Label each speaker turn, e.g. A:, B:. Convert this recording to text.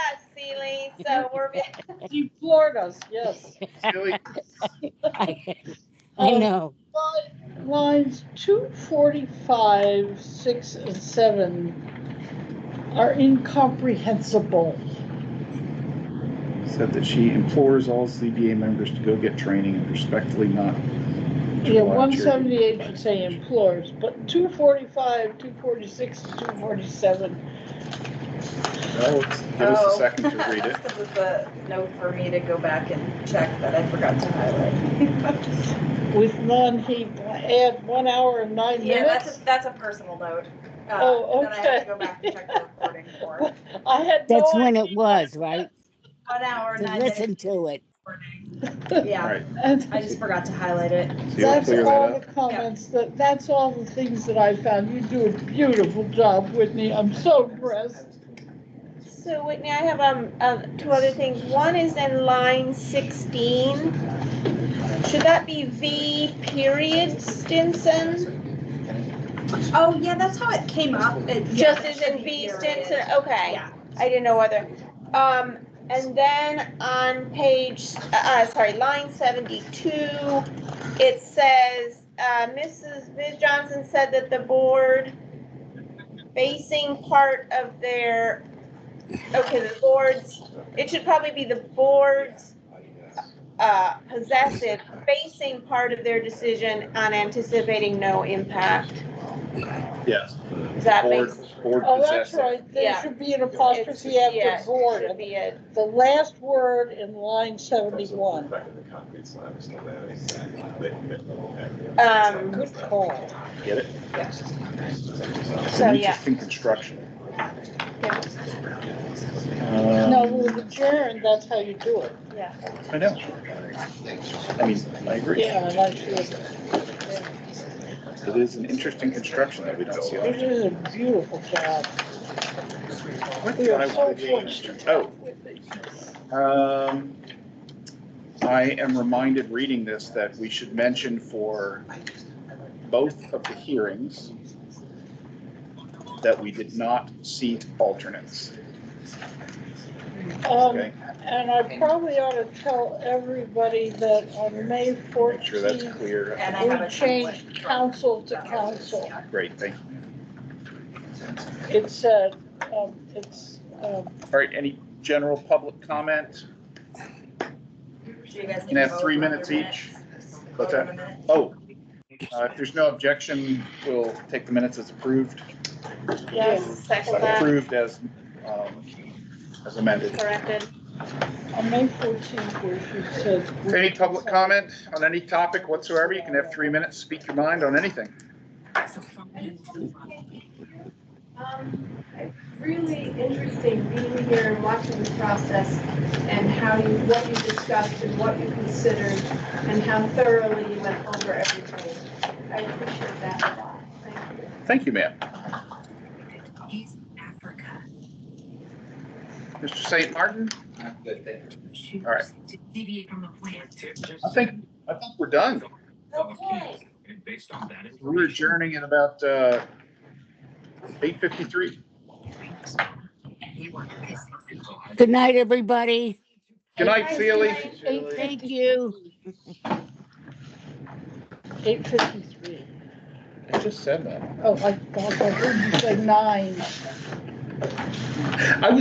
A: So we're,
B: You floored us, yes.
C: Silly.
D: I I know.
B: Line- Lines two forty-five, six, and seven are incomprehensible.
C: Said that she implores all ZBA members to go get training and respectfully not. to
B: Yeah,
C: allow
B: one
C: charity-
B: seventy-eight would say implores, but two forty-five, two forty-six, two forty-seven,
C: Well, let's Give
B: Oh.
C: us a second to read
A: Oh.
C: it.
A: This is a note for me to go back and check that I forgot to highlight.
B: with none, he add one hour and nine
A: Yeah, that's,
B: minutes.
A: a- that's a personal note. uh,
B: Oh,
A: That I have to
B: okay.
A: go back and check the recording for.
B: I had no
D: That's when it
B: idea.
D: was, right?
A: One hour,
D: To
A: nine minutes.
D: listen to it.
A: Yeah,
C: Alright,
B: And
A: I just forgot to highlight it.
C: so you'll
B: That's
C: clear that
B: all
C: up.
B: the comments, that, that's all the things that I found. You do a beautiful job, Whitney. I'm so impressed.
E: So Whitney, I have um, um, two other things. One is in line sixteen. Should that be V period Stinson?
A: Oh, yeah, that's how it came up. It- yeah,
E: Just
A: it
E: as
A: should
E: in
A: be
E: V
A: here it is.
E: Stinson, okay.
A: Yeah.
E: I didn't know whether, um, and then on page, uh, uh, sorry, line seventy-two, it says, uh, Mrs. Ms. Johnson said that the board basing part of their, okay, the board's, it should probably be the board's, uh, possessive, basing part of their decision on anticipating no impact.
C: Yes.
E: Does that make?
C: Board, board
B: Oh, that's
C: possessive.
B: right. There
E: Yeah.
B: should be an
E: It's-
B: apostrophe
E: yeah,
B: after
E: it
B: board.
E: should be it.
B: The last word in line seventy-one.
E: Um,
B: Good call.
C: Get it? It's
E: So,
C: an
E: yeah.
C: interesting construction.
B: No,
C: Um,
B: with adjourn, that's how you do it.
C: I know. I mean, I agree.
B: Yeah, I like it.
C: It is an interesting construction that we don't see.
B: You
C: often.
B: did a beautiful job.
C: What
B: We
C: did I
B: are so
C: want to change?
B: fortunate.
C: Oh, Um, I am reminded reading this that we should mention for both of the hearings that we did not seat alternates,
B: Um,
C: okay?
B: And I probably ought to tell everybody that on May
C: Make sure that's
B: fourteenth,
C: clear.
A: And I have
B: we
A: a template.
B: changed council to council.
C: Great, thank you.
B: It's, uh, um, it's, um,
C: All right, any general public comment?
A: So you guys
C: Can I have
A: vote
C: three
A: on your
C: minutes each?
A: minutes?
C: What's
A: Vote on
C: that?
A: the minutes.
C: Oh, uh, if there's no objection, we'll take the minutes as approved,
B: yes,
E: second that,
C: approved as, um, as amended.
E: corrected.
B: on May fourteenth, where she says.
C: Any public comment on any topic whatsoever? You can have three minutes, speak your mind on anything.
F: Um, Really interesting being here and watching the process and how you, what you discussed and what you considered and how thoroughly you went over everything. I appreciate that a lot. Thank you.
C: Thank you, ma'am. Mr. St. Martin, All right.
G: Deviate from the plan.
C: I think, I think we're done.
E: Okay.
G: And based on that
C: We're
G: information.
C: adjourning at about uh, 8:53.
D: Good night, everybody.
C: Good night, Sealy.
D: Thank you.
B: Eight fifty-three.
C: I just said that.
B: Oh, I thought I heard you say nine.
C: I was